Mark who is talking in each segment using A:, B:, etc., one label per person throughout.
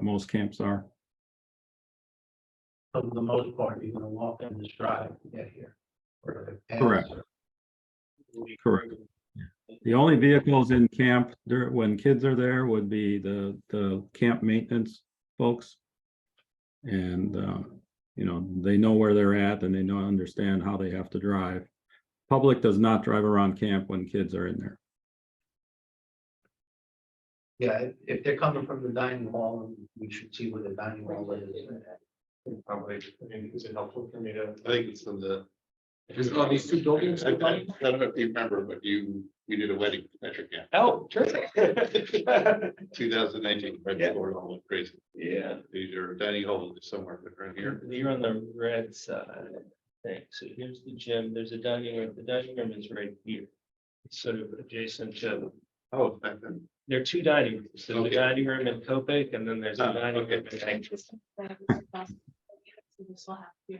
A: most camps are.
B: For the most part, you're gonna walk in this drive to get here. or the pass
A: Correct.
B: or-
A: Correct. The only vehicles in camp dur when kids are there would be the, the camp maintenance folks. And, um, you know, they know where they're at and they know, understand how they have to drive. Public does not drive around camp when kids are in there.
B: Yeah, if, if they're coming from the dining hall, we should see where the dining hall is.
C: Probably, I mean, is it helpful for me to? I think it's in the. It's on these two buildings. I don't I don't know if you remember, but you, we did a wedding measure camp. Oh, terrific. Two thousand nineteen, right
D: Yeah.
C: before it all went crazy.
D: Yeah,
C: These are dining hall is somewhere different here.
D: you're on the red side, I think. So here's the gym, there's a dining room, the dining room is right here. It's Sort of adjacent to,
C: Oh, back then.
D: there are two dining rooms, there's a
C: Okay.
D: dining room in Copic and then there's a
C: Ah,
D: dining
C: okay.
D: room in Anchorage.
E: B,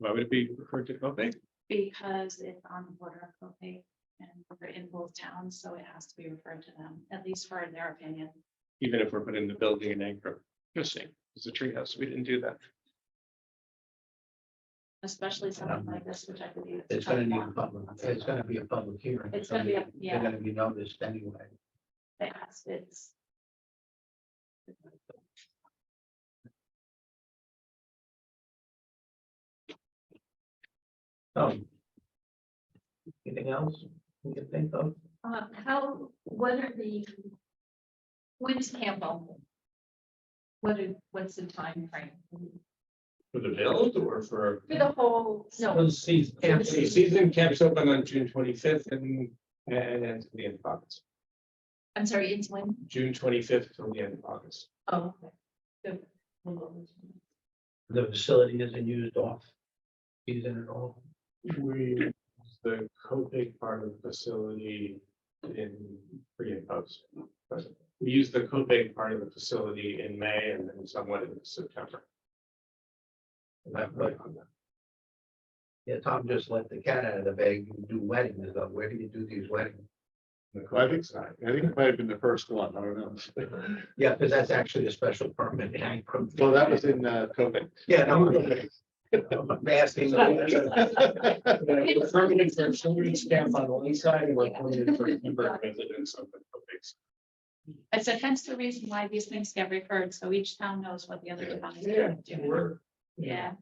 C: Why would it be referred to Copic?
E: Because it's on the border of Copain and we're in both towns, so it has to be referred to them, at least for their opinion.
D: Even if we're putting the building in Anchorage. Interesting, it's a treehouse, we didn't do that.
E: Especially something like this, which I believe.
B: It's gonna need a public, it's gonna be a public hearing.
E: It's gonna be a- yeah.
B: They're gonna be noticed anyway.
E: It has, it's.
B: So. Anything else we can think of?
F: Uh,
E: um,
F: how, what are the? When's camp open? What is, what's the time frame?
C: For the build or for?
F: For the whole, no,
B: For the season.
C: Season camps open on June twenty-fifth and, and ends at the end of August,
F: I'm sorry, it's when?
C: June twenty-fifth till the end of August.
F: Oh. okay. The-
B: The facility isn't used off. Season at all.
C: We, the Copic part of the facility in pre and post. We use the Copic part of the facility in May and then somewhat in September.
B: That- but- Yeah, Tom just let the cat out of the bag. You do weddings, though. Where do you do these weddings?
C: I think so. I think it might have been the first one. I don't know.
B: Yeah, because that's actually a special permit.
C: Well, that was in uh, Copic.
B: Yeah, no, I'm asking.
C: The permanent for children's camp on one side and we're permanent for member residents of the Copics.
E: It's a hence the reason why these things get referred, so each town knows what the other town is
C: Yeah,
E: doing.
C: we're.
E: Yeah.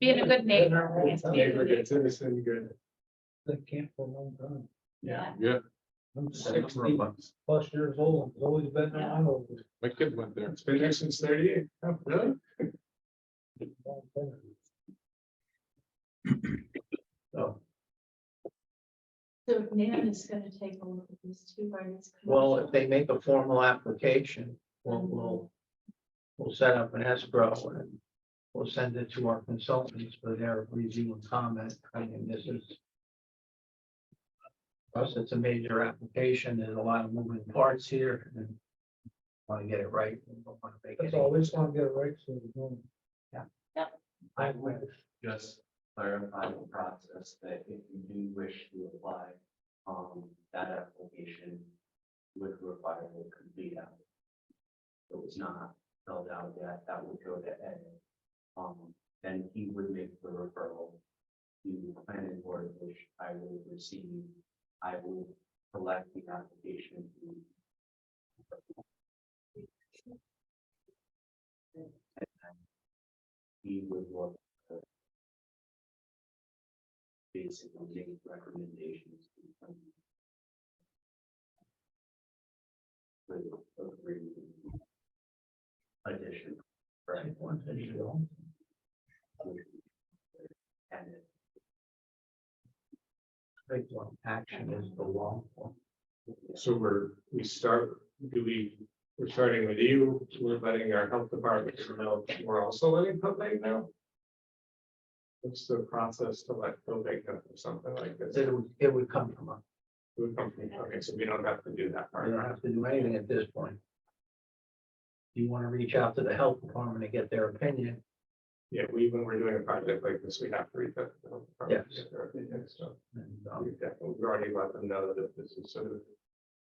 E: Being a good neighbor. I guess, being a good-
C: Aggregate, citizen, good.
B: The camp for a long time.
E: Yeah.
C: Yeah,
B: I'm
C: sixty
B: plus years old. It's always been
E: there.
C: my kid went there. It's been there since thirty-eight. Oh, really?
B: So,
E: So Nan is gonna take a look at these two rights.
B: well, if they make a formal application, we'll, we'll, we'll set up an escrow and we'll send it to our consultants for their review and comment. I mean, this is plus it's a major application. There's a lot of moving parts here and want to get it right. We don't want to make
G: That's
B: any-
G: all, we just want to get it right, so we don't.
H: I would just clarify the process that if you do wish to apply, um, that application would require a complete application. It was not filled out yet, that would go to Ed. Um, then he would make the referral to the planning board, which I will receive. I will collect the application. He would work. with- Basically, make recommendations. With agree. Addition. Right. One additional. And it
B: Big one. Action is the law.
C: So we're, we start, do we, we're starting with you, we're letting our health department know, we're also letting Copac know? What's the process to let Copac know or something like this?
B: It would, it would come from us.
C: Food company, Okay, so we don't have to do that
B: I
C: part.
B: don't have to do anything at this point. You want to reach out to the health department and get their opinion.
C: Yeah, we, when we're doing a project like this, we have to read that.
B: Yes.
C: So
B: and,
C: we
B: um,
C: um, definitely, we already let them know that if this is sort of